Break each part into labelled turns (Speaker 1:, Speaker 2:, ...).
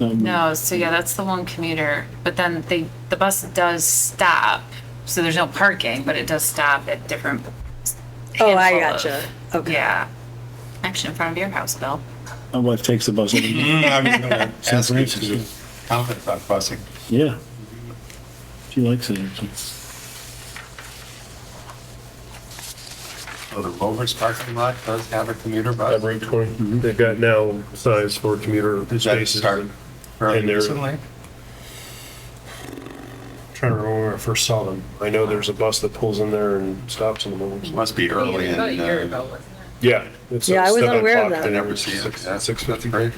Speaker 1: No, so yeah, that's the one commuter, but then they, the bus does stop, so there's no parking, but it does stop at different.
Speaker 2: Oh, I
Speaker 1: handful of-
Speaker 2: gotcha. Okay.
Speaker 1: Yeah. Actually, in front of your house, Bill.
Speaker 3: My wife takes the bus. every-
Speaker 4: Mm, I was gonna ask you to
Speaker 3: Francisco.
Speaker 4: do comment about busing.
Speaker 5: Mm-hmm.
Speaker 3: yeah. She likes it. actually.
Speaker 4: So the Rovers parking lot does have a commuter
Speaker 6: At
Speaker 4: bus.
Speaker 6: Route 20,
Speaker 4: Mm-hmm.
Speaker 6: they've got now signs for commuter
Speaker 4: Did that
Speaker 6: spaces.
Speaker 4: start fairly
Speaker 6: and they're-
Speaker 4: recently?
Speaker 6: Trying to remember where I first saw them. I know there's a bus that pulls in there and stops in the mornings.
Speaker 4: Must be early in,
Speaker 7: About a year
Speaker 4: uh,
Speaker 7: ago, wasn't it?
Speaker 6: Yeah. it's
Speaker 2: Yeah,
Speaker 6: at
Speaker 2: I was
Speaker 6: 7
Speaker 2: unaware of
Speaker 6: o'clock
Speaker 2: that.
Speaker 4: I
Speaker 6: and
Speaker 4: never see it.
Speaker 6: six-
Speaker 4: That's
Speaker 6: six
Speaker 4: fifty
Speaker 6: fifty.
Speaker 4: grade.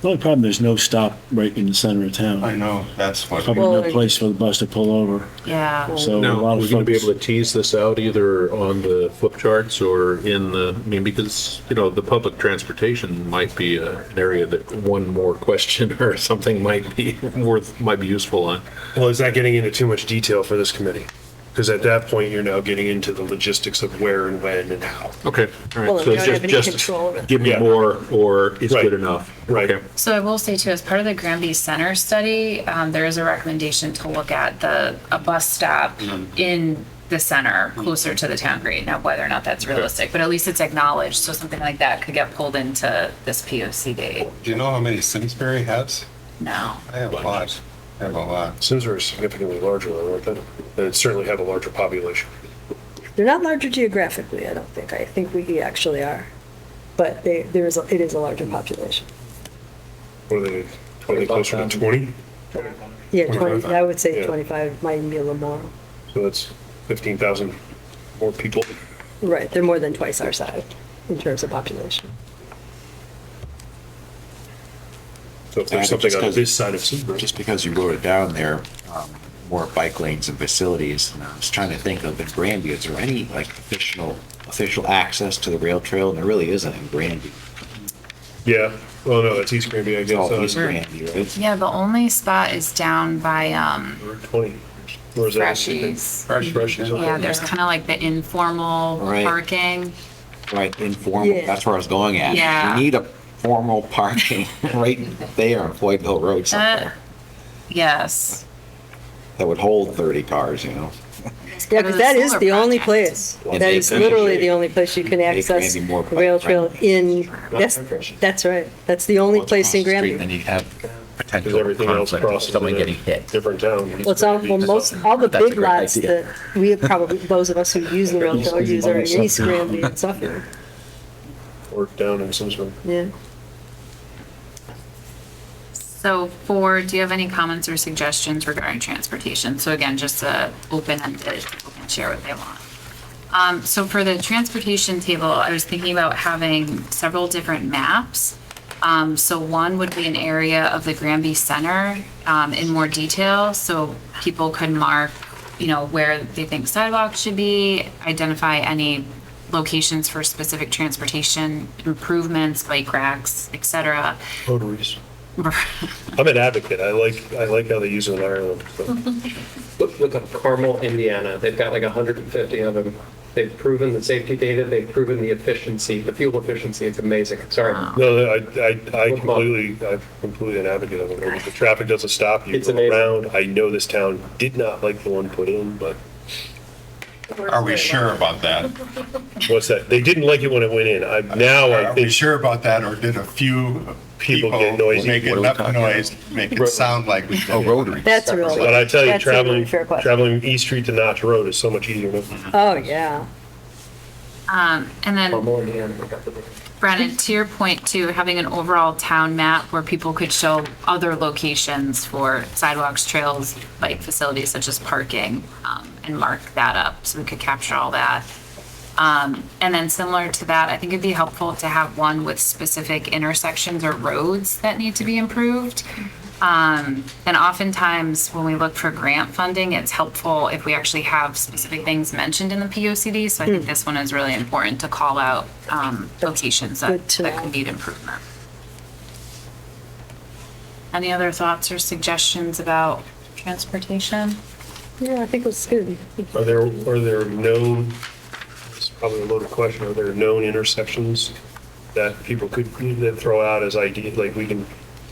Speaker 3: The only problem, there's no stop right in the center of
Speaker 4: I
Speaker 3: town.
Speaker 4: know, that's what.
Speaker 3: Probably
Speaker 2: Well,
Speaker 3: no place for the bus to pull over.
Speaker 1: Yeah.
Speaker 3: So a
Speaker 5: Now,
Speaker 3: lot
Speaker 5: we're
Speaker 3: of
Speaker 5: going to be
Speaker 3: folks,
Speaker 5: able to tease this out either on the flip charts or in the, I mean, because, you know, the public transportation might be a- an area that one more question or something might be worth, might be useful on.
Speaker 6: Well, is that getting into too much detail for this committee? Because at that point, you're now getting into the logistics of where and when and how.
Speaker 5: Okay. all right.
Speaker 2: Well,
Speaker 5: So
Speaker 2: we don't
Speaker 5: just-
Speaker 2: have any
Speaker 5: just
Speaker 2: control over
Speaker 5: Give me
Speaker 6: Yeah.
Speaker 5: more or it's
Speaker 6: Right.
Speaker 5: good enough.
Speaker 6: Right.
Speaker 5: Okay.
Speaker 1: So I will say too, as part of the Granby Center study, um, there is a recommendation to look at the, a bus stop in the center, closer to the town grade. Now, whether or not that's realistic, but at least it's acknowledged, so something like that could get pulled into this P O C D.
Speaker 4: Do you know how many Simsbury has?
Speaker 1: No.
Speaker 4: I have a lot. I have a lot.
Speaker 6: Simsbury is significantly larger than Orphan, and it certainly have a larger population.
Speaker 2: They're not larger geographically, I don't think. I think we actually are. But they, there is, a- it is a larger population.
Speaker 6: What are they, are they closer to 20?
Speaker 2: Yeah, 20,
Speaker 6: 25,
Speaker 2: I would say
Speaker 6: yeah.
Speaker 2: 25 might be a little more.
Speaker 6: So that's 15,000 more people.
Speaker 2: Right, they're more than twice our size in terms of population.
Speaker 6: So if there's
Speaker 8: Yeah,
Speaker 6: something
Speaker 8: just
Speaker 6: on
Speaker 8: 'cause-
Speaker 6: this side of Simsbury.
Speaker 8: Just because you wrote it down there, um, more bike lanes and facilities, and I was trying to think of in Granby, is there any like official, official access to the rail trail? And there really isn't in Granby.
Speaker 6: Yeah, well, no, that's East Granby, I
Speaker 8: It's all
Speaker 6: guess.
Speaker 8: East
Speaker 6: uh,
Speaker 8: Granby, right?
Speaker 1: Yeah, the only spot is down by, um,
Speaker 6: Route 20. Where's that?
Speaker 1: Freshies.
Speaker 4: Fresh, fresh.
Speaker 1: Yeah, there's kind of like the informal
Speaker 8: Right.
Speaker 1: parking.
Speaker 8: Right, informal,
Speaker 2: Yeah.
Speaker 8: that's where I was going at.
Speaker 1: Yeah.
Speaker 8: You need a formal parking right there on Floyd Hill Road somewhere
Speaker 1: Uh, Yes.
Speaker 8: that would hold 30 cars, you know?
Speaker 2: Yeah,
Speaker 1: part of
Speaker 2: because
Speaker 1: the
Speaker 2: that is
Speaker 1: solar
Speaker 2: the only
Speaker 1: project.
Speaker 2: place.
Speaker 8: And
Speaker 2: That
Speaker 8: they
Speaker 2: is literally
Speaker 8: appreciate-
Speaker 2: the only place you can access
Speaker 8: Granby more
Speaker 2: the rail trail
Speaker 8: bike-friendly.
Speaker 2: in, that's, that's right. That's the only
Speaker 8: Once
Speaker 2: place in
Speaker 8: across the street, Then
Speaker 2: Granby.
Speaker 8: you have
Speaker 6: Because
Speaker 8: potential
Speaker 6: everything else
Speaker 8: conflict, of
Speaker 6: crosses.
Speaker 8: someone
Speaker 6: in a
Speaker 8: getting hit.
Speaker 6: Different town.
Speaker 2: Well, it's all, well, most, all the
Speaker 8: That's a
Speaker 2: big
Speaker 8: great
Speaker 2: lots
Speaker 8: idea.
Speaker 2: that we have probably, those of us who use the rail trail
Speaker 3: East-
Speaker 2: use are in
Speaker 3: East-
Speaker 2: East Granby and Suffolk,
Speaker 6: Or down in Simsbury.
Speaker 2: yeah.
Speaker 1: So for, do you have any comments or suggestions regarding transportation? So again, just a open-ended, people can share what they want. Um, so for the transportation table, I was thinking about having several different maps. Um, so one would be an area of the Granby Center, um, in more detail, so people could mark, you know, where they think sidewalks should be, identify any locations for specific transportation improvements, bike racks, et cetera.
Speaker 6: Rotaries. I'm an advocate. I like, I like how they use it in Ireland. so.
Speaker 9: Look, look up Carmel, Indiana. They've got like 150 of them. They've proven the safety data. They've proven the efficiency, the fuel efficiency. It's amazing. Sorry.
Speaker 6: No, I, I, I completely, I'm completely an advocate of it. If the traffic doesn't stop, you
Speaker 9: It's
Speaker 6: go
Speaker 9: amazing.
Speaker 6: around. I know this town did not like the one put in, but
Speaker 4: Are we sure about that?
Speaker 6: what's that? They didn't like it when it went in. I, now I
Speaker 4: Are we
Speaker 6: think,
Speaker 4: sure about that, or did a few people
Speaker 6: People get noisy.
Speaker 4: make
Speaker 8: What are we
Speaker 4: enough
Speaker 8: talking
Speaker 4: noise, make it
Speaker 9: Rotary.
Speaker 4: sound like we did?
Speaker 8: Oh, Rotary.
Speaker 2: That's a real.
Speaker 6: but I tell you,
Speaker 2: that's a really
Speaker 6: traveling,
Speaker 2: fair question.
Speaker 6: traveling East Street to Notch Road is so much easier. than-
Speaker 2: Oh, yeah.
Speaker 1: Um, and then.
Speaker 9: Carmel, Indiana. They got the-
Speaker 1: Brennan, to your point too, having an overall town map where people could show other locations for sidewalks, trails, bike facilities such as parking, um, and mark that up so we could capture all that. Um, and then similar to that, I think it'd be helpful to have one with specific intersections or roads that need to be improved. Um, and oftentimes when we look for grant funding, it's helpful if we actually have specific things mentioned in the P O C D. So I
Speaker 2: Hmm.
Speaker 1: think this one is really important to call out, um, locations that,
Speaker 2: good to
Speaker 1: that
Speaker 2: know.
Speaker 1: could need improvement. Any other thoughts or suggestions about transportation?
Speaker 2: Yeah, I think it was good.
Speaker 6: Are there, are there known, it's probably a loaded question, are there known intersections that people could, that throw out as ideas, like we can